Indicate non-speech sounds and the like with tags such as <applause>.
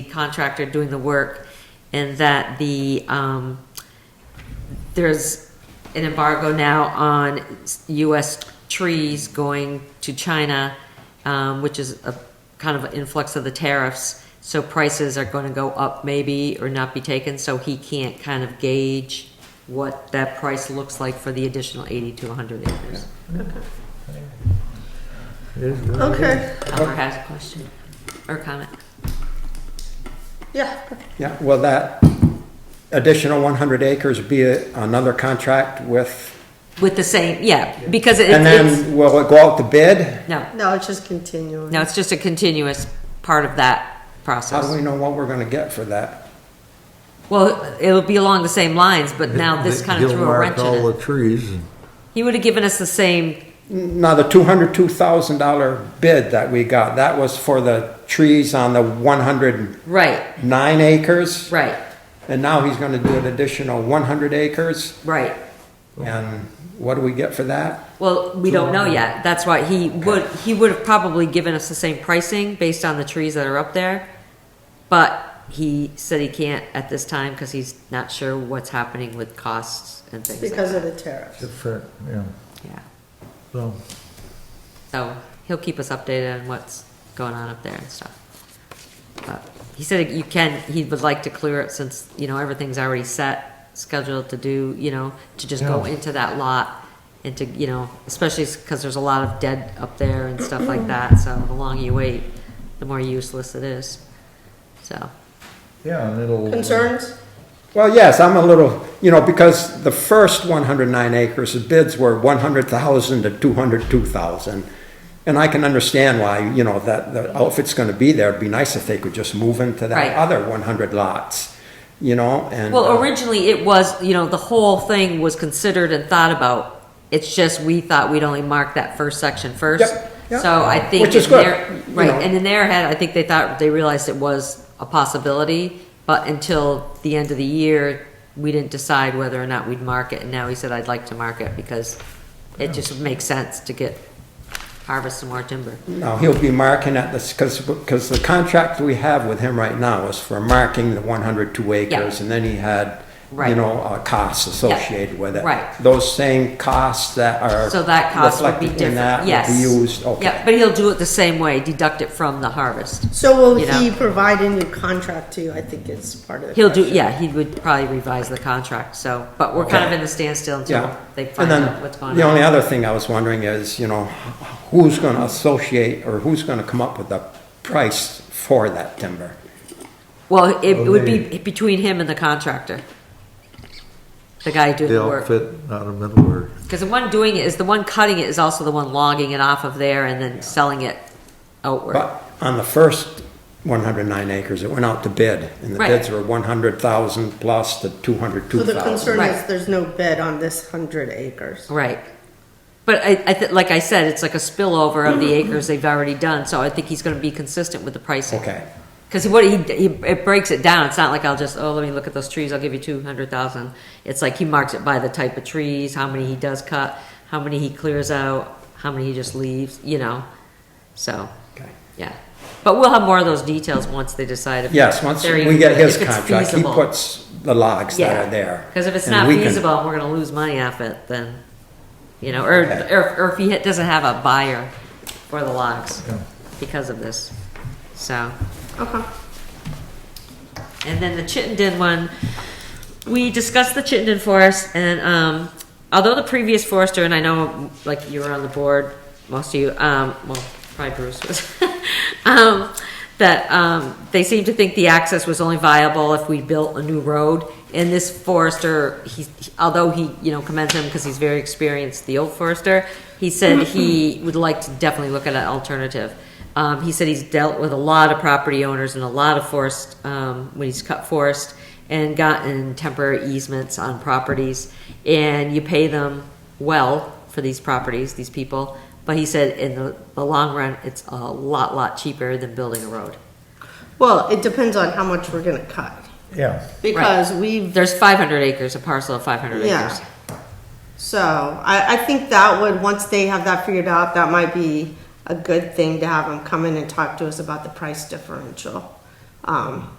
the contractor doing the work and that the, um, there's an embargo now on US trees going to China, um, which is a kind of an influx of the tariffs. So prices are going to go up maybe or not be taken, so he can't kind of gauge what that price looks like for the additional 80 to 100 acres. Okay, Albert has a question or comment. yeah, Yeah, will that additional 100 acres be a- another contract with, With the same, yeah, because it- and it's, then will it go out to bid? no, no, it's just continuing. no, it's just a continuous part of that How do process. we know what we're going to get for that? Well, it'll be along the same lines, but now this kind of He'll threw a mark wrench in all it. the trees. and- He would have given us the same, Now, the $202,000 bid that we got, that was for the trees on the 109 right, acres? right, And now he's going to do an additional 100 acres? right. And what do we get for that? Well, we don't know yet. That's why he would, he would have probably given us the same pricing based on the trees that are up there. But he said he can't at this time because he's not sure what's happening with costs and things like Because of that. the tariffs. Different, yeah, Yeah. so, So he'll keep us updated on what's going on up there and stuff. But He said you can, he would like to clear it since, you know, everything's already set, scheduled to do, you know, to just go Yeah. into that lot and to, you know, especially because there's a lot of dead up there and stuff like that, so the longer you wait, the more useless it is. So, yeah, and it'll. Concerns? Well, yes, I'm a little, you know, because the first 109 acres, the bids were 100,000 to 202,000. And I can understand why, you know, that, the outfit's gonna be there, it'd be nice if they could just move into Right. that other 100 lots, you know, and. well, uh, originally it was, you know, the whole thing was considered and thought about. It's just we thought we'd only mark that first section first. Yep, yep. So I think Which is in their, good, you right, know. and in their head, I think they thought, they realized it was a possibility, but until the end of the year, we didn't decide whether or not we'd mark it, and now he said, I'd like to mark it because it just makes sense to get, harvest some more timber. No, uh, he'll be marking at this, because, because the contract we have with him right now is for marking the 102 acres. And then he had, you Right. know, uh, costs associated with it. right. Those same costs that are. So that cost would be reflected in that different, yes. Would be used, okay. Yeah, but he'll do it the same way, deduct it from the harvest. So will You know. he provide a new contract to you? I think it's part of the He'll do, question. yeah, he would probably revise the contract, so, but we're kind of in the standstill until Yeah. they And find out then, what's going the only on. other thing I was wondering is, you know, who's gonna associate, or who's gonna come up with the price for that timber? Well, it Oh, would be they- between him and the contractor. The guy doing The the work. outfit out of Middleburg. Because the one doing it is, the one cutting it is also the one logging it off of there and then selling it outward. But on the first one hundred nine acres, it went out to bid, and the Right. bids were one hundred thousand plus the two hundred two So the concern thousand. is Right. there's no bid on this hundred acres. Right. But I, I, thi- like I said, it's like a spillover <clears throat> of the acres they've already done, so I think he's gonna be consistent with the pricing. Okay, Because what he, he it breaks it down. It's not like I'll just oh let me look at those trees. I'll give you two hundred thousand. It's like he marks it by the type of trees, how many he does cut, how many he clears out, how many he just leaves. You know, so okay. yeah. But we'll have more of those details once they decide. If Yes, once we get his contract, he puts the logs that are there. Because if it's and not we can- feasible, and we're going to lose money off it. Then you know, or Okay. or, or if he ha- doesn't have a buyer for the logs because of this, so. Okay. And then the Chittenden one, we discussed the Chittenden forest, and um, although the previous forester, and I know, like, you were on the board, most of you, um, well, probably Bruce was, <laughs> um, that um, they seemed to think the access was only viable if we built a new road. And this forester, he, although he, you know, commends him because he's very experienced, the old forester, he said he would like to definitely look at an alternative. Um, he said he's dealt with a lot of property owners and a lot of forest, um, when he's cut forest and gotten temporary easements on properties. And you pay them well for these properties, these people. But he said in the, the long run, it's a lot, lot cheaper than building a road. Well, it depends on how much we're gonna cut. Yeah, Because we've, There's 500 acres, a parcel of 500 Yeah. acres. so I, I think that would, once they have that figured out, that might be a good thing to have them come in and talk to us about the price differential. Um,